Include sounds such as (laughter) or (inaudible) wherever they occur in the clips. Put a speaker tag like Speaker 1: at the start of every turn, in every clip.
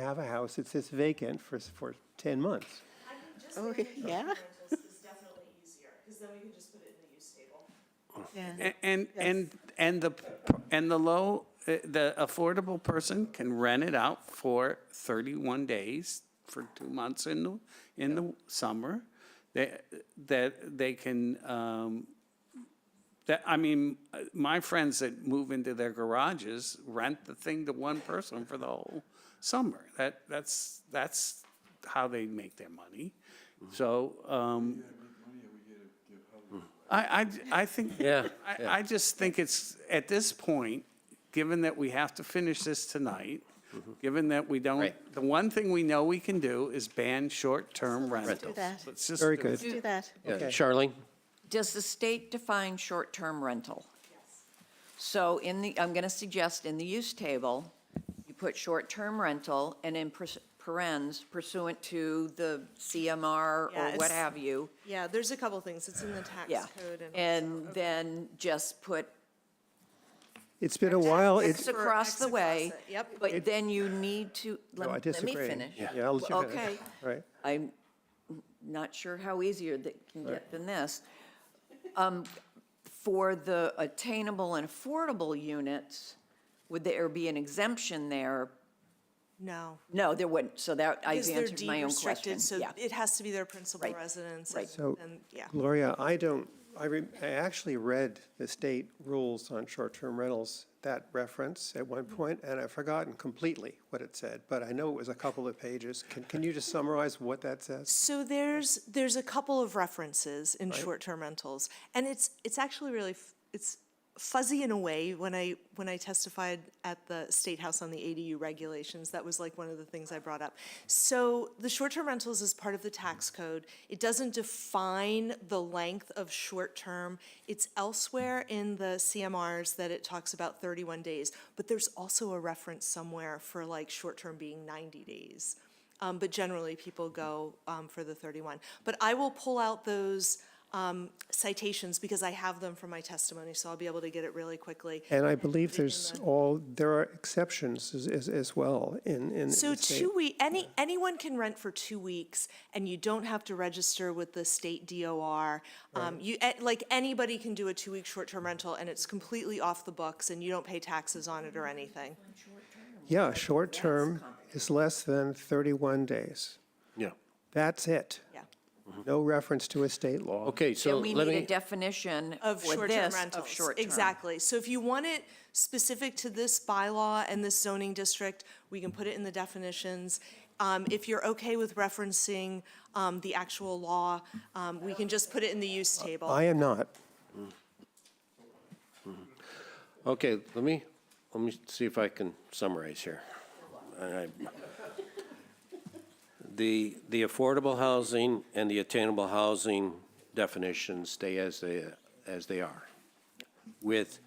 Speaker 1: have a house that sits vacant for, s- for 10 months.
Speaker 2: I think just
Speaker 3: Oh,
Speaker 2: making it
Speaker 3: yeah.
Speaker 2: rentals is definitely easier, because then we can just put it in the use table.
Speaker 3: Yeah.
Speaker 4: A- And, and, and the, and the low, uh, the affordable person can rent it out for 31 days, for two months in, the in the summer. They, that they can, um, that, I mean, uh, my friends that move into their garages rent the thing to one person for the whole summer. That, that's, that's how they make their money. So, um, I, I, I think.
Speaker 5: Yeah,
Speaker 4: I, I just think it's, at this point, given that we have to finish this tonight, given that we don't,
Speaker 5: Mm-hmm. Right.
Speaker 4: the one thing we know we can do is ban short-term
Speaker 3: Let's do
Speaker 4: rentals.
Speaker 3: that.
Speaker 4: Let's just
Speaker 1: Very
Speaker 4: do
Speaker 1: good.
Speaker 4: it.
Speaker 3: Let's do that.
Speaker 5: Yeah, Charlene?
Speaker 6: Does the state define short-term rental? So in the, I'm going to suggest in the use table, you put short-term rental and in pers- parens pursuant to the CMR
Speaker 2: Yeah,
Speaker 6: or what
Speaker 2: it's-
Speaker 6: have you.
Speaker 2: Yeah, there's a couple things, it's in the tax
Speaker 6: Yeah. And then just put
Speaker 1: It's been a while,
Speaker 6: X
Speaker 1: it's,
Speaker 6: across
Speaker 2: X
Speaker 6: the
Speaker 2: across
Speaker 6: way.
Speaker 2: it, yep.
Speaker 6: But then you need to,
Speaker 1: no, oh, I
Speaker 6: let let me
Speaker 1: disagree.
Speaker 6: finish.
Speaker 1: Yeah, I'll let you finish.
Speaker 6: Okay.
Speaker 1: Right.
Speaker 6: I'm not sure how easier that can get than this. Um, For the attainable and affordable units, would there be an exemption there?
Speaker 2: No.
Speaker 6: No, there wouldn't, so that, I've
Speaker 2: Because they're
Speaker 6: answered my
Speaker 2: deed
Speaker 6: own question.
Speaker 2: restricted, so
Speaker 6: Yeah.
Speaker 2: it has to be their principal
Speaker 6: Right,
Speaker 2: residence.
Speaker 6: right.
Speaker 1: So
Speaker 2: and- and- Yeah.
Speaker 1: Gloria, I don't, I, re- I actually read the state rules on short-term rentals, that reference at one point, and I've forgotten completely what it said, but I know it was a couple of pages. Can, can you just summarize what that says?
Speaker 2: So there's, there's a couple of references in short-term rentals, and it's, it's actually really, f- it's fuzzy in a way. When I, when I testified at the State House on the ADU regulations, that was like one of the things I brought up. So the short-term rentals is part of the tax code. It doesn't define the length of short-term. It's elsewhere in the CMRs that it talks about thirty-one days, but there's also a reference somewhere for like short-term being ninety days. Um, but generally, people go, um, for the thirty-one. But I will pull out those, um, citations because I have them from my testimony, so I'll be able to get it really quickly.
Speaker 1: And I believe there's all, there are exceptions as- as, as well in, in the
Speaker 2: So
Speaker 1: state.
Speaker 2: two week, any, anyone can rent for two weeks and you don't have to register with the state DOR. Um, you, eh, like, anybody can do a two-week short-term rental and it's completely off the books and you don't pay taxes on it or anything.
Speaker 1: Yeah, short-term is less than 31 days.
Speaker 5: Yeah.
Speaker 1: That's it.
Speaker 2: Yeah.
Speaker 1: No reference to a state law.
Speaker 5: Okay, so
Speaker 6: Then we
Speaker 5: let
Speaker 6: need a
Speaker 5: me,
Speaker 6: definition
Speaker 2: Of
Speaker 6: for
Speaker 2: short-term
Speaker 6: this,
Speaker 2: rentals.
Speaker 6: of short-term.
Speaker 2: Exactly. So if you want it specific to this bylaw and this zoning district, we can put it in the definitions. Um, if you're okay with referencing, um, the actual law, um, we can just put it in the use table.
Speaker 1: I am not.
Speaker 5: okay, let me, let me see if I can summarize here. And I- The, the affordable housing and the attainable housing definitions stay as they, as they are, with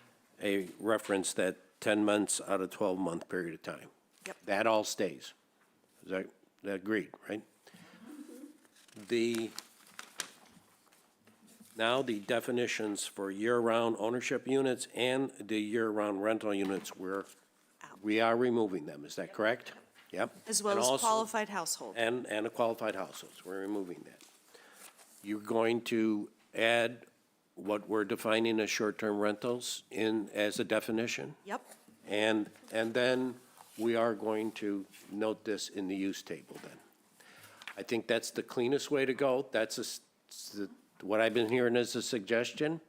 Speaker 5: a reference that 10 months out of 12-month period of time.
Speaker 2: Yep.
Speaker 5: That all stays. Is that, that agreed, right? The, now the definitions for year-round ownership units and the year-round rental units, we're, we are removing them, is that correct? Yep.
Speaker 2: As well
Speaker 5: And
Speaker 2: as
Speaker 5: also-
Speaker 2: qualified household.
Speaker 5: And, and the qualified households, we're removing that. You're going to add what we're defining as short-term rentals in, as a definition?
Speaker 2: Yep.
Speaker 5: And, and then we are going to note this in the use table then. I think that's the cleanest way to go. That's a s- s- what I've been hearing as a suggestion.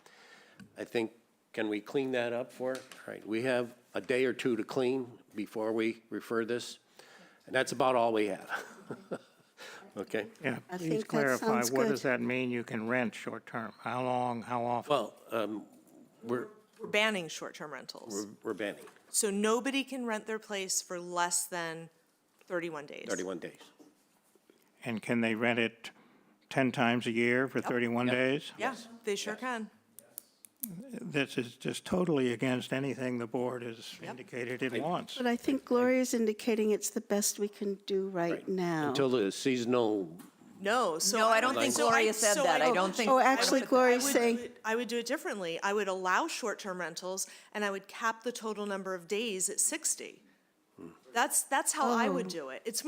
Speaker 5: I think, can we clean that up for, all right, we have a day or two to clean before we refer this. And that's about all we have. (laughs) Okay?
Speaker 7: Yeah,
Speaker 3: I
Speaker 7: please
Speaker 3: think that
Speaker 7: clarify,
Speaker 3: sounds
Speaker 7: what
Speaker 3: good.
Speaker 7: does that mean you can rent short-term? How long, how often?
Speaker 5: Well, um, we're,
Speaker 2: We're banning short-term rentals.
Speaker 5: we're- we're banning
Speaker 2: So nobody can rent their place for less than 31 days.
Speaker 5: 31 days.
Speaker 7: And can they rent it 10 times a year for 31 days?
Speaker 2: Yeah, they sure can.
Speaker 7: This is just totally against anything the board has indicated it wants.
Speaker 3: But I think Gloria's indicating it's the best we can do right
Speaker 5: Right.
Speaker 3: now.
Speaker 5: Until the seasonal,
Speaker 2: No, so.
Speaker 6: No, I don't think
Speaker 2: so I-
Speaker 6: Gloria said
Speaker 2: so
Speaker 6: that. I
Speaker 2: would-
Speaker 6: don't think.
Speaker 3: Oh, actually,
Speaker 2: I
Speaker 3: Gloria's
Speaker 2: would
Speaker 3: saying,
Speaker 2: do it- I would do it differently. I would allow short-term rentals and I
Speaker 3: Oh.
Speaker 2: would cap the total number of days at 60. That's, that's how I would do it. It's